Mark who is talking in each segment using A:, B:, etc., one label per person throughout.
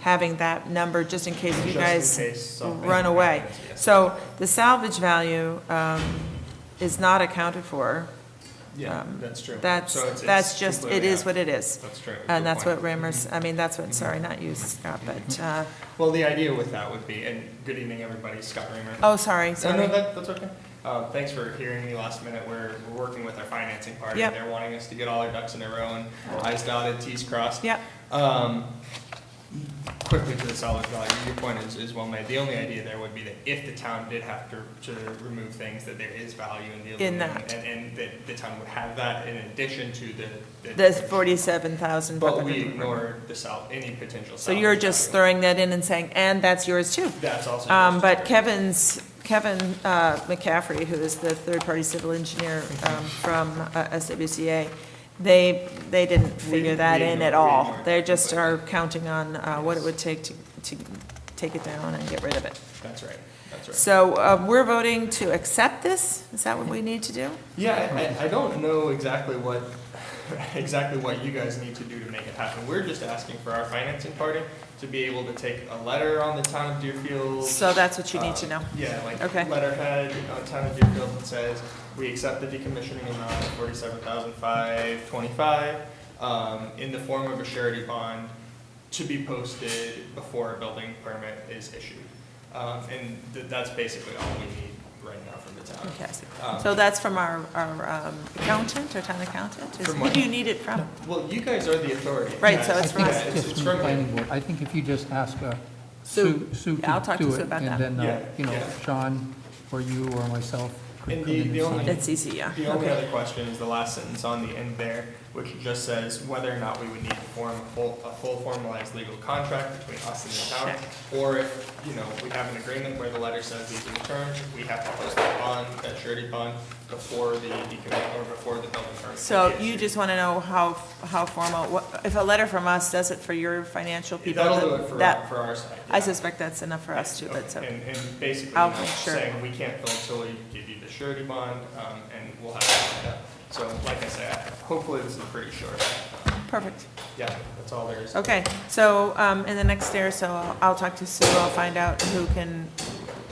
A: having that number just in case you
B: Just in case
A: guys
B: something
A: run away.
B: happens, yes.
A: So the salvage value um, is not accounted for.
B: Yeah,
A: Um,
B: that's true.
A: That's,
B: So it's-
A: that's
B: it's
A: just, it
B: completely
A: is
B: out.
A: what it is.
B: That's true. Good
A: And that's
B: point.
A: what Ramers, I mean, that's what, sorry, not you, Scott, but, uh,
B: Well, the idea with that would be, and good evening, everybody, Scott Reimer.
A: oh, sorry,
B: No,
A: sorry.
B: no, that, that's okay. Uh, thanks for hearing me last minute. We're, we're working with our financing party.
A: Yep.
B: They're wanting us to get all our ducks in a row and I's dotted, T's crossed.
A: Yep.
B: Um, quickly to the solid value, your point is, is well made. The only idea there would be that if the town did have to, to remove things, that there is value in the
A: In
B: aluminum.
A: that.
B: And, and that the town would have that in addition to the.
A: The forty-seven thousand.
B: But we ignore the sal, any potential
A: So you're
B: salvage
A: just
B: value.
A: throwing that in and saying, and that's yours too.
B: That's also.
A: Um,
B: yours.
A: but Kevin's, Kevin, uh, McCaffrey, who is the third-party civil engineer, um, from uh, SWCA, they, they didn't figure
B: We-
A: that
B: we
A: in at
B: ignored- we
A: all.
B: ignored
A: They
B: it
A: just are
B: completely.
A: counting on, uh, what it
B: Yes.
A: would take to, to take it down and get rid of it.
B: That's right, that's right.
A: So, uh, we're voting to accept this? Is that what we need to do?
B: Yeah, I, I don't know exactly what, exactly what you guys need to do to make it happen. We're just asking for our financing party to be able to take a letter on the town of Deerfield.
A: So that's what you need to
B: uh,
A: know.
B: Yeah, like
A: Okay.
B: letterhead on town of Deerfield that says, we accept the decommissioning amount of forty-seven thousand five twenty-five, um, in the form of a surety bond to be posted before a building permit is issued. Um, and th- that's basically all we need right now from the town.
A: Fantastic.
B: Um,
A: So that's from our, our um, accountant, our town accountant? Is-
B: From
A: Who
B: what?
A: do you need it from?
B: Well, you guys are the authority.
A: Right, so
B: Yeah,
A: it's
B: it's-
A: from us.
B: yeah,
A: Right.
B: it's-
C: Just
B: it's
C: from
B: from
C: the planning
B: you.
C: board. I think if you just ask uh,
A: Sue.
C: Sue, Sue
A: Yeah, I'll talk
C: to
A: to
C: do
A: Sue
C: it,
A: about
C: and
A: that.
C: then, uh,
B: Yeah,
C: you know,
B: yeah.
C: Sean, or you, or myself could
B: And
C: come
B: the-
C: in and
B: the
C: sign.
B: only-
C: it.
A: It's easy, yeah.
B: The only
A: Okay.
B: other question is the last sentence on the end there, which just says whether or not we would need to form a full, a full formalized legal contract between us and the town. Or if, you know, we have an agreement where the letter says these are the terms, we have to post that bond, that surety bond before the, decommi- or before the building permit.
A: So
B: can be
A: you
B: issued.
A: just want to know how, how formal, what- if a letter from us does it for your financial people?
B: That'll do it for,
A: that-
B: for our side.
A: I
B: yeah.
A: suspect that's enough for us too,
B: Okay,
A: but so,
B: And, and basically,
A: I'll
B: now
A: make sure.
B: saying we can't fill until we give you the surety bond, um, and we'll have it lined up. So like I said, hopefully this is pretty short.
A: perfect.
B: Yeah, that's all there is.
A: Okay, so um, in the next day or so, I'll- I'll talk to Sue, I'll find out who can,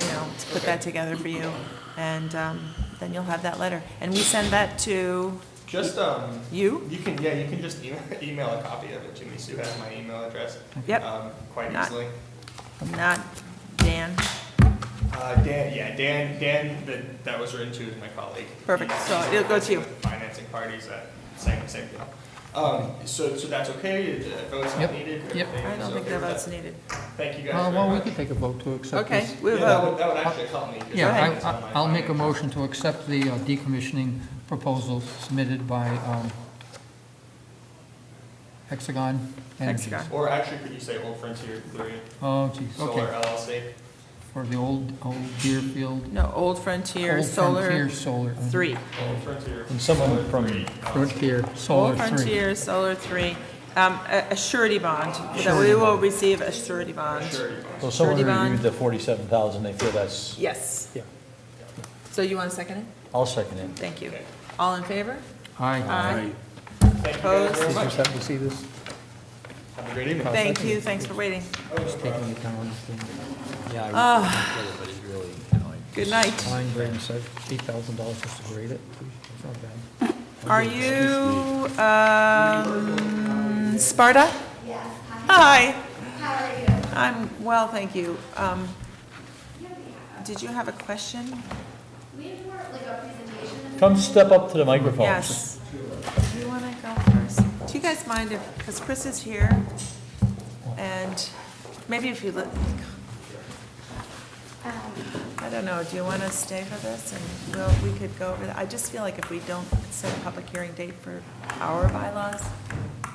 A: you know, to put that together for you. And um, then you'll have that letter. And we send that to
B: Just, um,
A: you?
B: you can, yeah, you can just email, email a copy of it to me. Sue has my email address.
A: Yep.
B: Um, quite
A: Not-
B: easily.
A: Not Dan?
B: Uh, Dan, yeah, Dan, Dan, that, that was written to is my colleague.
A: Perfect,
B: He's-
A: so
B: he's
A: it'll go to you.
B: with Financing parties at same, same deal. Um, so, so that's okay? The vote's not
C: Yep,
B: needed?
C: yep.
B: Everything
A: I
B: is
A: don't think
B: okay
A: that
B: with that?
A: vote's needed.
B: Thank you guys
C: Uh,
B: very
C: Well, we
B: much.
C: could take a vote to accept
A: Okay,
C: this.
A: we
B: Yeah, that
A: vote.
B: would, that would actually help me. 'cause
C: Yeah,
B: I
A: ahead.
B: think it's
C: I-
B: on my
C: I- I'll make a
B: finance.
C: motion to accept the uh, decommissioning proposal submitted by um, Hexagon Energy.
A: Hexagon.
B: Or actually, could you say Old Frontier Three
C: Oh, geez,
B: Solar
C: okay.
B: LLC?
C: For the old, old Deerfield,
A: No, Old Frontier
C: Old
A: Solar
C: Frontier Solar. uh,
A: 3.
B: Old Frontier.
D: And someone from-
B: Three.
C: Frontier Solar
A: Old
C: 3.
A: Frontier Solar 3, um, a a surety bond, that we will receive a surety bond.
B: Sure.
D: So someone
A: Surety bond.
D: reviewed the forty-seven thousand, they feel that's,
A: Yes.
D: Yeah.
A: So you want to second it?
D: I'll second it.
A: Thank you.
B: Okay.
A: All in favor?
C: Aye.
A: Aye.
B: Thank you guys very
A: Opposed?
B: much.
D: Just happen to see this,
B: Have a great evening.
A: Thank you, thanks for waiting.
C: Just taking the calendar thing.
A: Ah. Good night.
D: fine grain, so eight thousand dollars just to grade it, it's not bad.
A: Are you, um, Sparta? Hi.
E: How are you?
A: I'm well, thank you. Um, Did you have a question?
E: We have more like a presentation.
D: Come step up to the microphone.
A: Yes. Do you want to go first? Do you guys mind if, because Chris is here, and maybe if you, li-
E: Um,
A: I don't know, do you want to stay for this, and we'll, we could go over that? I just feel like if we don't set a public hearing date for our bylaws,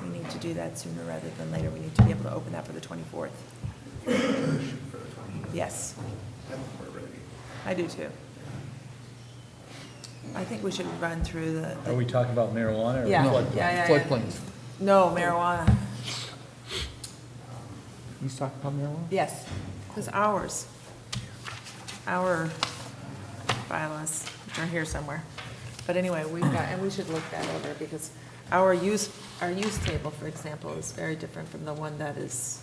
A: we need to do that sooner rather than later. We need to be able to open that for the 24th. Yes. I do too. I think we should run through the, the
D: Are we talking about marijuana or?
A: Yeah.
C: No,
A: Yeah, yeah, yeah.
C: Floodplains.
A: No, marijuana,
C: He's talking about marijuana?
A: yes. It was ours. Our bylaws, which are here somewhere. But anyway, we've got, and we should look that over because our use, our use table, for example, is very different from the one that is